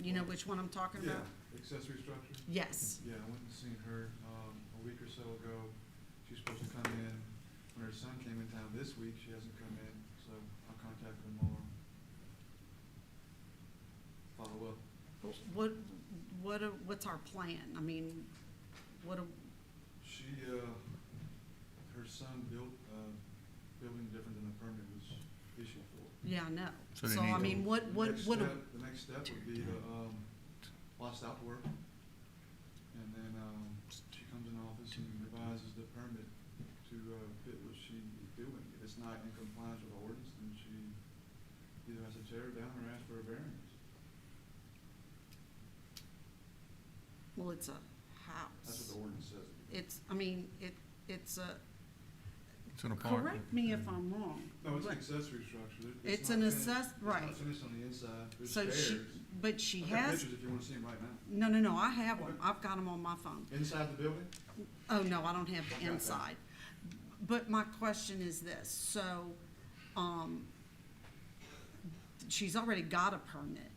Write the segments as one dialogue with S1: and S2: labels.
S1: you know which one I'm talking
S2: Yeah,
S1: about?
S2: accessory structure.
S1: Yes,
S2: Yeah, I went and seen her, um, a week or so ago. She's supposed to come in. When her son came in town this week, she hasn't come in, so I'll contact her tomorrow. Follow up.
S1: what, what, are- what's our plan? I mean, what, are-
S2: She, uh, her son built, uh, building different than the permit was issued for.
S1: yeah, I know.
S3: So they
S1: So, I
S3: need to-
S1: mean, what,
S2: The
S1: what,
S2: next
S1: what,
S2: step- The next step would be to, um, lost out work. And then, um, she comes in office and revises the permit to, uh, fit what she is doing. If it's not in compliance with the ordinance, then she either has to tear it down or ask for a variance.
S1: well, it's a
S2: That's what
S1: house.
S2: the ordinance says.
S1: It's, I mean, it, it's a,
S3: It's an apartment.
S1: correct me if I'm wrong.
S2: No, it's an
S1: but-
S2: accessory structure. It-
S1: It's
S2: not
S1: an
S2: finished.
S1: assess,
S2: It's
S1: right.
S2: not finished on the inside. There's
S1: So she,
S2: stairs.
S1: but she
S2: I've got
S1: has,
S2: pictures if you wanna see them right now.
S1: no, no, no, I have them.
S2: Okay.
S1: I've got them on my phone.
S2: Inside the building?
S1: Oh, no, I don't have
S2: I got
S1: the
S2: that.
S1: inside. But my question is this, so, um, she's already got a permit.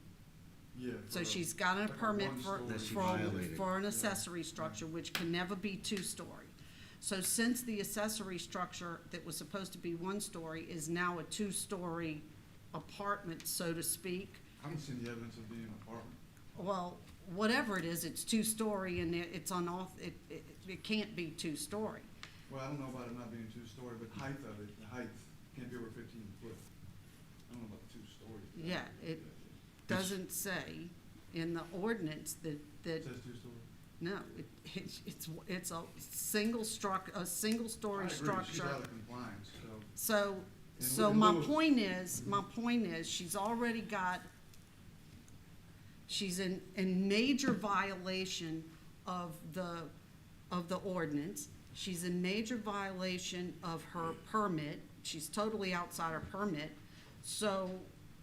S2: Yeah.
S1: So
S2: for-
S1: she's got a
S2: Like a
S1: permit for,
S2: one-story. That she
S1: for,
S3: violated.
S1: for an
S2: Yeah.
S1: accessory structure, which can never be two-story. So since the accessory structure that was supposed to be one-story is now a two-story apartment, so to speak,
S2: I haven't seen the evidence of being an apartment.
S1: well, whatever it is, it's two-story and it, it's unoff, it, it, it can't be two-story.
S2: Well, I don't know about it not being two-story, but height of it, the height can't be over fifteen foot. I don't know about two-story.
S1: Yeah, it- Doesn't say in the ordinance that, that
S2: It says two-story.
S1: No, it, it's, it's, it's a single struct, a single-story
S2: I agree, she's
S1: structure.
S2: out of compliance, so,
S1: So,
S2: And
S1: so
S2: in
S1: my
S2: lieu of-
S1: point is, my point is, she's already got, she's in, in major violation of the, of the ordinance. She's in major violation of her permit. She's totally outside her permit. So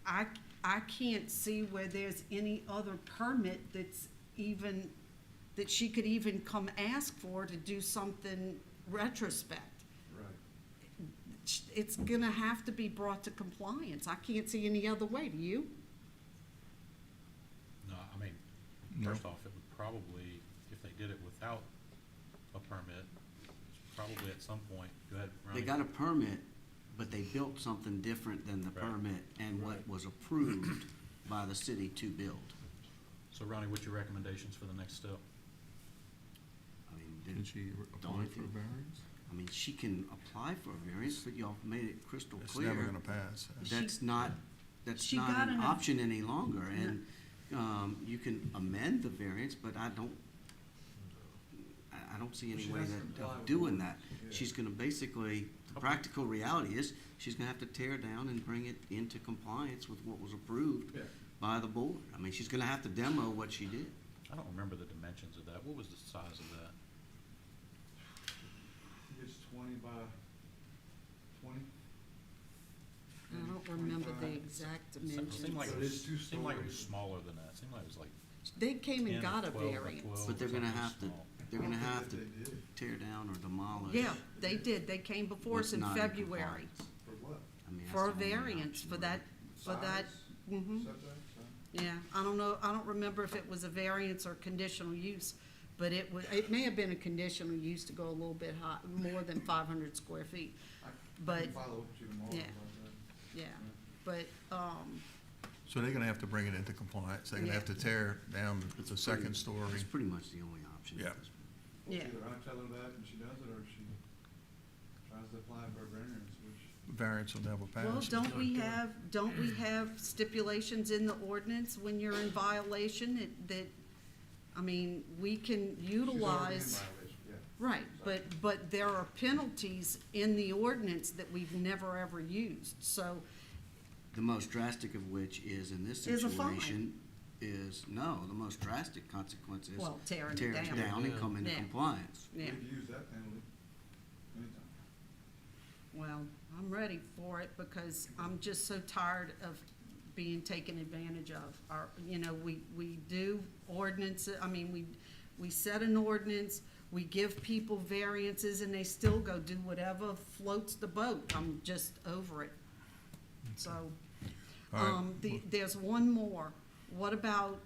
S1: I, I can't see where there's any other permit that's even, that she could even come ask for to do something retrospect
S2: right.
S1: it's gonna have to be brought to compliance. I can't see any other way, do you?
S4: No, I mean,
S3: No.
S4: first off, it would probably, if they did it without a permit, it's probably at some point, go ahead, Ronnie.
S5: They got a permit, but they built something different than the
S4: Right.
S5: permit and what was approved by the city to build.
S4: So Ronnie, what's your recommendations for the next step?
S5: I mean,
S3: Did
S5: did,
S3: she re- apply
S5: Don't
S3: for a
S5: you-
S3: variance?
S5: I mean, she can apply for a variance, but y'all made it crystal
S3: It's
S5: clear.
S3: never gonna pass.
S1: She-
S5: That's not, that's
S1: She got
S5: not an
S1: an-
S5: option any longer, and, um, you can amend the variance, but I don't, I, I don't see any
S2: She
S5: way
S2: has to
S5: that,
S2: comply
S5: of
S2: with
S5: doing
S2: the
S5: that.
S2: ordinance, yeah.
S5: She's gonna basically, the practical reality is, she's gonna have to tear down and bring it into compliance with what was approved
S2: Yeah.
S5: by the board. I mean, she's gonna have to demo what she did.
S4: I don't remember the dimensions of that. What was the size of that?
S2: I think it's twenty by twenty.
S1: I don't remember the
S2: 25.
S1: exact
S4: Mm, It se- it Seemed like
S1: dimensions.
S4: it
S2: But it's
S4: was,
S2: two
S4: seemed like it was
S2: stories.
S4: smaller than that. Seemed like it was like
S1: They came
S4: ten
S1: and
S4: or
S1: got a
S4: twelve or
S1: variance.
S4: twelve
S5: But
S4: or
S5: they're gonna
S4: something
S5: have to,
S4: small.
S5: they're gonna have to
S2: I don't think that they did,
S5: tear down or demolish.
S1: Yeah, they did. They came before us
S5: what's
S1: in
S5: not
S1: February
S5: compliance.
S2: for what?
S5: I mean, that's
S1: for a
S5: the only
S1: variance
S5: option,
S1: for
S5: really.
S1: that, for that, mhm.
S2: Setbacks, huh?
S1: yeah. I don't know, I don't remember if it was a variance or conditional use, but it was, it may have been a conditional use to go a little bit high, more than five hundred square feet,
S2: I can
S1: But-
S2: Follow up with you tomorrow
S1: yeah.
S2: about that.
S1: yeah.
S2: Yeah.
S1: But, um,
S3: So they're gonna have to bring it into compliance. They're gonna
S1: Yeah.
S3: have to tear down
S5: It's
S3: the
S5: pretty-
S3: second story.
S5: It's pretty much the only option. at
S3: Yeah.
S5: this point.
S1: yeah,
S2: Either I tell her that and she does it, or she tries to apply for a variance, which
S3: Variance will never pass.
S1: Well,
S3: It's
S1: don't we
S3: not-
S1: have, don't we have stipulations in the ordinance when you're in violation that, that, I mean, we can
S2: she's already in
S1: utilize.
S2: violation, yeah.
S1: Right, but, but there are penalties in the ordinance that we've never ever used, so,
S5: The most drastic of which is in this
S1: Is a fine.
S5: situation is, no, the most drastic consequence is
S1: well, tearing
S5: tear
S1: it
S5: it
S1: down.
S5: down and come into
S1: Yeah.
S5: compliance.
S1: Yeah,
S2: We've used that penalty anytime.
S1: well, I'm ready for it because I'm just so tired of being taken advantage of. Our, you know, we, we do ordinance, I mean, we, we set an ordinance, we give people variances and they still go do whatever floats the boat. I'm just over it. So,
S3: All right.
S1: um, the, there's one more. What about,